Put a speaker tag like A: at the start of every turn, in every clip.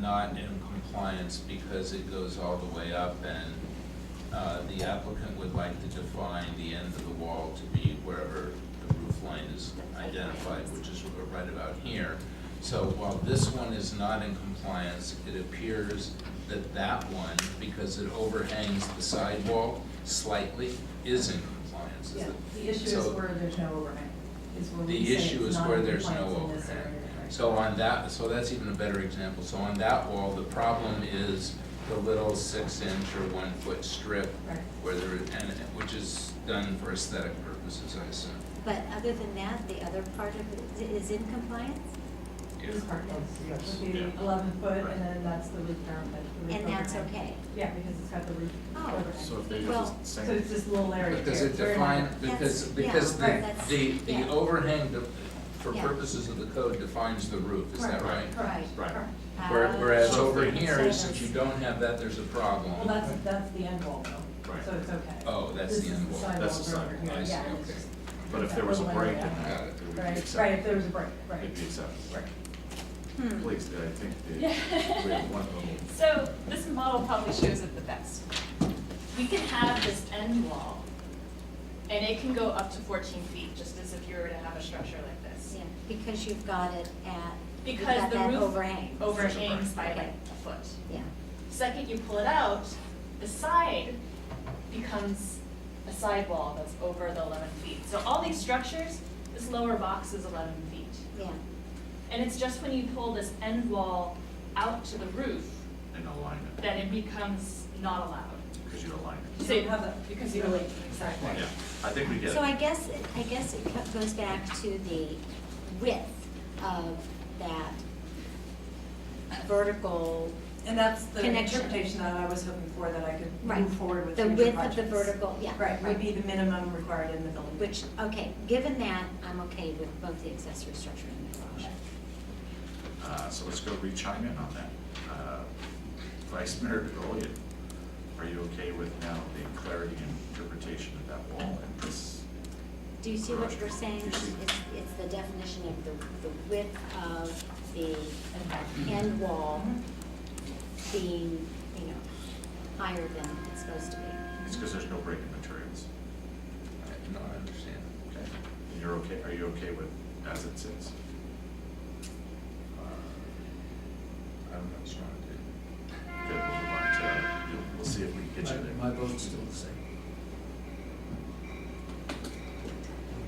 A: not in compliance because it goes all the way up and uh, the applicant would like to define the end of the wall to be wherever the roof line is identified, which is right about here. So while this one is not in compliance, it appears that that one, because it overhangs the sidewall slightly, is in compliance. Is
B: Yeah,
A: it-
B: the issue is
A: so-
B: where there's no overhang, is where we
A: the
B: say
A: issue
B: it's
A: is
B: not
A: where
B: in
A: there's no
B: compliance in this
A: overhang.
B: area, right?
A: So on that, so that's even a better example. So on that wall, the problem is the little six inch or one foot strip
B: Right.
A: where there, and, which is done for aesthetic purposes, I assume.
C: But other than that, the other part of it is is in compliance?
A: Yeah.
B: This part is,
D: Yes.
B: would be
A: Yeah.
B: eleven foot,
A: Right.
B: and then that's the roof down, that's the roof
C: And that's
B: overhang.
C: okay?
B: Yeah, because it's got the roof
C: Oh.
B: overhang.
D: So if they
C: Well,
D: just
B: So
D: say,
B: it's this little area here.
A: Because it
B: it's very
A: define,
B: minor.
A: because,
C: That's-
A: because
C: yeah,
A: the,
C: right, that's-
A: the, the
C: yeah.
A: overhang, de- for
C: Yeah.
A: purposes of the code, defines the roof, is that right?
B: Correct,
C: Right.
B: Correct,
D: Right.
B: correct.
C: Ah.
A: Where- Whereas
D: So
A: over
D: if they-
A: here,
C: So
A: since
C: that's-
A: you don't have that, there's a problem.
B: Well, that's, that's the end wall though,
D: Right.
B: so it's okay.
A: Oh, that's
B: This
A: the
B: is
A: end wall.
D: That's the
B: sidewall over
D: sidewall.
A: I
B: here,
A: see,
B: yeah, it's
A: okay.
B: just-
D: but if there was a
B: That
D: break in
B: little area.
D: that, it would be
B: Right, right, if
D: acceptable.
B: there was a break, right.
D: It'd be acceptable.
B: Right.
C: Hmm.
D: Please, I think the, we
E: Yeah.
D: have one little
E: So this model probably shows it the best. We can have this end wall, and it can go up to fourteen feet, just as if you were to have a structure like this.
C: Yeah, because you've got it at, you've
E: Because
C: got
E: the
C: that
E: roof
C: overhang.
E: Overhangs by like
C: Okay.
E: a foot.
C: Yeah,
E: Second, you pull it out, the side becomes a sidewall that's over the eleven feet. So all these structures, this lower box is eleven feet.
C: yeah.
E: And it's just when you pull this end wall out to the roof
D: and align it,
E: that it becomes not allowed.
D: because you align
B: You
D: it.
B: don't have that.
E: Because you really, exactly.
D: Yeah, I think we get it.
C: So I guess, it- I guess it co- goes back to the width of that vertical,
B: And that's the
C: Connection.
B: interpretation that I was hoping for, that I could
C: right.
B: move forward with
C: The
B: future
C: width of the
B: projects.
C: vertical, yeah.
B: Right, would be the minimum required in the building.
C: Which, okay, given that, I'm okay with both the accessory structure and the garage.
D: Uh, so let's go re-chime in on that. Uh, Vice Mayor DeGolia, are you okay with now the clarity and interpretation of that wall and this?
C: Do you see what
D: Garage.
C: we're saying?
D: You
C: It's,
D: see-
C: it's the definition of the, the width of the end wall being, you know, higher than it's supposed to be.
D: It's because there's no break in materials.
A: I- No, I understand.
D: Okay. And you're okay, are you okay with as it sits?
A: Uh, I'm not sure I do.
D: Good, we'll move on to, you'll- we'll see if we can get you there.
F: My my vote's still the same.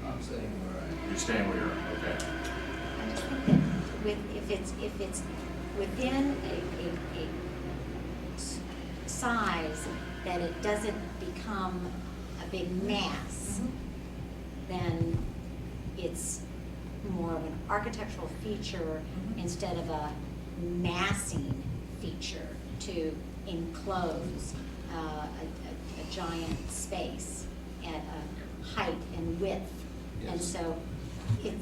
F: I'm saying we're all right.
D: You're staying where you're at, okay.
C: I just think that with, if it's, if it's within a, a, a s- size that it doesn't become a big mass, then it's more of an architectural feature
B: Mhm.
C: instead of a massing feature to enclose uh, a, a, a giant space at a height and width. And
A: Yes.
C: so it,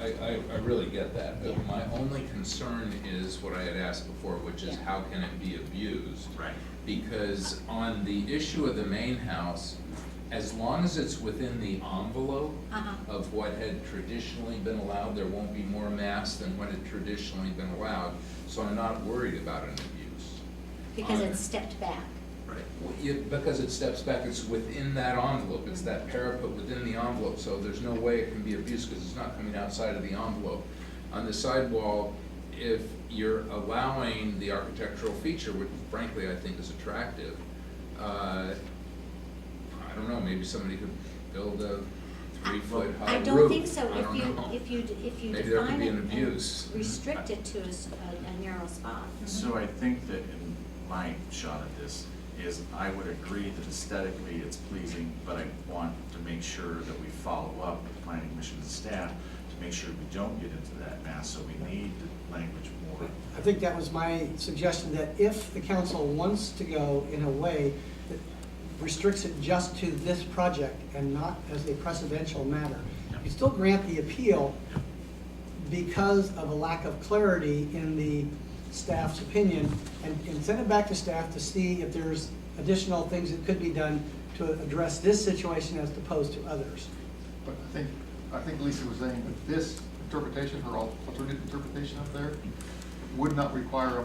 A: I, I, I really get that,
C: Yeah.
A: but my only concern is what I had asked before, which is
C: Yeah.
A: how can it be abused?
D: Right.
A: Because on the issue of the main house, as long as it's within the envelope
C: uh-huh,
A: of what had traditionally been allowed, there won't be more mass than what had traditionally been allowed, so I'm not worried about an abuse.
C: because
A: On-
C: it's stepped back.
D: Right.
A: Well, you- Because it steps back, it's within that envelope, it's that parapet within the envelope, so there's no way it can be abused because it's not coming outside of the envelope. On the sidewall, if you're allowing the architectural feature, which frankly I think is attractive, uh, I don't know, maybe somebody could build a three-foot high
C: I
A: roof.
C: don't think so,
A: I
C: if
A: don't
C: you,
A: know.
C: if you, d- if you
A: Maybe there could
C: define
A: be
C: it
A: an
C: and
A: abuse.
C: restrict it to a, s- a- a narrow spot.
D: So I think that in my shot at this is I would agree that aesthetically it's pleasing, but I want to make sure that we follow up with planning commission and staff to make sure we don't get into that mess, so we need the language more.
G: I think that was my suggestion, that if the council wants to go in a way that restricts it just to this project and not as a precedential matter, you still grant the appeal because of a lack of clarity in the staff's opinion, and, and send it back to staff to see if there's additional things that could be done to address this situation as opposed to others.
H: But I think, I think Lisa was saying that this interpretation, her alternative interpretation up there, would not require a